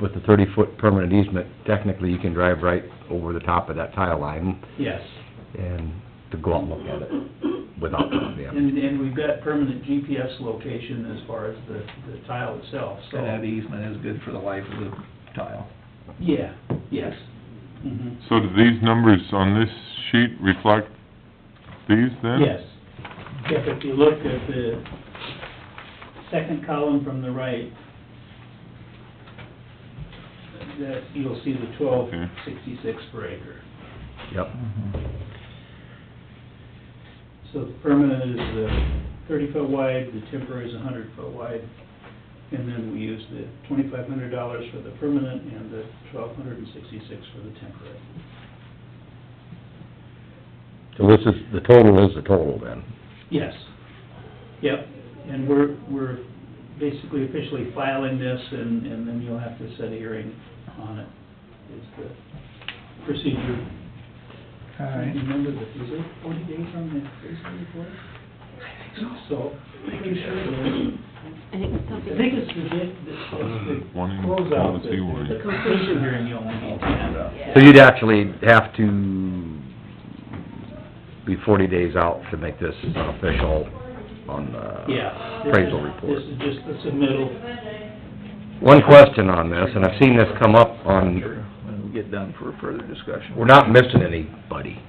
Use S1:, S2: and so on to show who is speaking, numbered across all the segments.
S1: with the thirty-foot permanent easement, technically you can drive right over the top of that tile line
S2: Yes.
S1: and to go out and look at it without them.
S2: And, and we've got permanent GPS location as far as the, the tile itself, so.
S3: And that easement is good for the life of the tile.
S2: Yeah, yes. Mhm.
S4: So do these numbers on this sheet reflect these then?
S2: Yes. If, if you look at the second column from the right, that, you'll see the twelve sixty-six per acre.
S1: Yep,
S2: So the permanent is the thirty foot wide, the temporary is a hundred foot wide, and then we use the twenty-five hundred dollars for the permanent and the twelve hundred and sixty-six for the temporary.
S1: so this is, the total is the total then.
S2: Yes. Yep, and we're, we're basically officially filing this, and, and then you'll have to set a hearing on it, is the procedure.
S3: All right.
S2: Remember that, is it forty days on the basement report? So, pretty sure it is.
S5: I think it's
S2: I
S5: something.
S2: think it's the, bit- the, it's the
S4: One in
S2: closeout,
S4: policy, one in-
S2: the the completion hearing you only need to have.
S1: So you'd actually have to be forty days out to make this official on the
S2: Yeah. this
S1: appraisal
S2: is-
S1: report.
S2: This is just the submittal,
S1: One question on this, and I've seen this come up on,
S3: When we get done for further discussion.
S1: we're not missing anybody,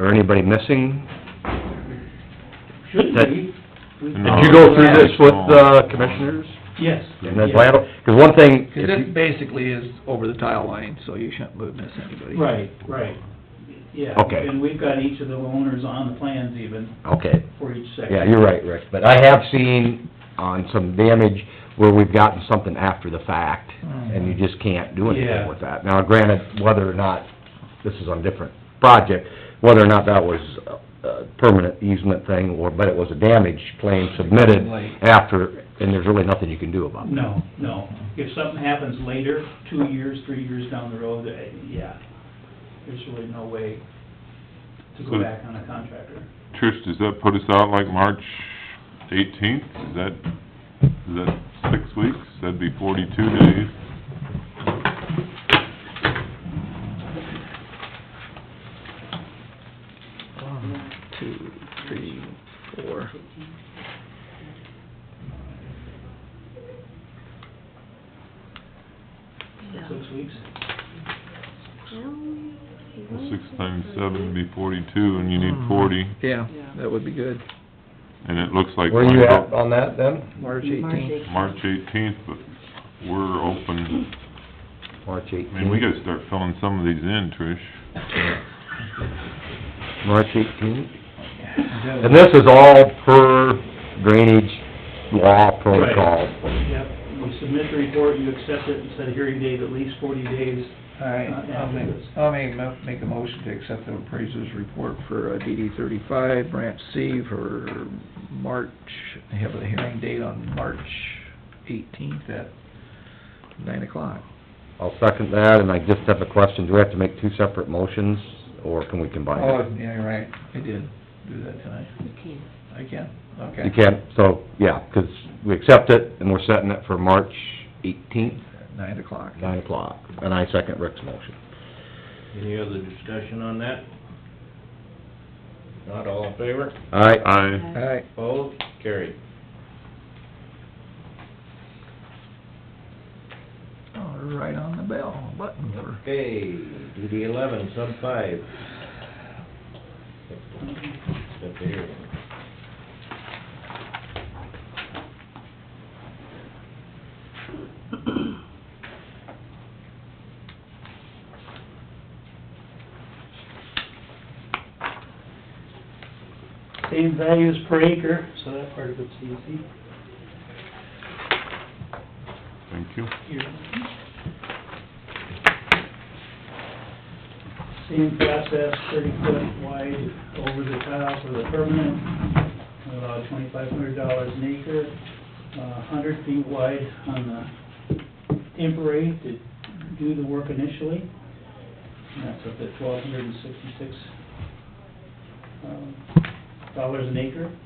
S1: or anybody missing?
S2: should
S1: That-
S2: be. We-
S1: Did you go through this with the commissioners
S2: Yes.
S1: and then plan? Because one thing,
S3: Because
S1: if
S3: this
S1: you,
S3: basically is over the tile line, so you shouldn't miss anybody.
S2: Right, right, yeah.
S1: Okay.
S2: And we've got each of the owners on the plans even,
S1: okay,
S2: for each section.
S1: yeah, you're right, Rick, but I have seen on some damage where we've gotten something after the fact, and you just can't do
S2: Yeah.
S1: anything with that. Now, granted, whether or not, this is on a different project, whether or not that was a- a permanent easement thing, or, but it was a damage claim submitted
S3: Late.
S1: after, and there's really nothing you can do about it.
S2: No, no, if something happens later, two years, three years down the road, eh, yeah, there's really no way to go
S4: So-
S2: back on a contractor.
S4: Trish, does that put us out like March eighteenth? Is that, is that six weeks? That'd be forty-two days.
S3: One, two, three, four.
S5: Yeah.
S2: Six weeks?
S4: Well, Six times seven would be forty-two, and you need forty,
S3: Yeah, that would be good.
S4: and it looks like...
S1: Where are you
S4: we're
S1: at on that then?
S3: March
S5: March
S3: eighteenth.
S5: eighteenth.
S4: March eighteenth, but we're open,
S1: March
S4: I
S1: eighteenth.
S4: mean, we gotta start filling some of these in, Trish.
S1: March eighteenth. And this is all per drainage law protocol.
S2: Yep, you submit the report, you accept it, and set a hearing date at least forty days.
S3: All right, I'll make, I'll make, a mo- make a motion to accept the appraiser's report for uh, DD thirty-five, branch C for March, I have a hearing date on March eighteenth at nine o'clock.
S1: I'll second that, and I just have a question, do we have to make two separate motions, or can we combine
S3: Oh,
S1: it?
S3: yeah, you're right, I did do that tonight.
S5: You can.
S3: I can, okay.
S1: You can, so, yeah, 'cause we accept it, and we're setting it for March eighteenth,
S3: Nine o'clock.
S1: nine o'clock, and I second Rick's motion.
S6: Any other discussion on that? Not all in favor?
S1: All right,
S4: Aye.
S3: All right,
S6: Opposed? Carried.
S3: oh, right on the bell button for,
S6: Okay, DD eleven, sub five. Step here.
S2: Same values per acre, so that part of it's easy.
S4: Thank you.
S2: Here. Same process, thirty foot wide over the tile for the permanent, about twenty-five hundred dollars an acre, uh, hundred feet wide on the temporary to do the work initially. And that's up to twelve hundred and sixty-six um, dollars an acre.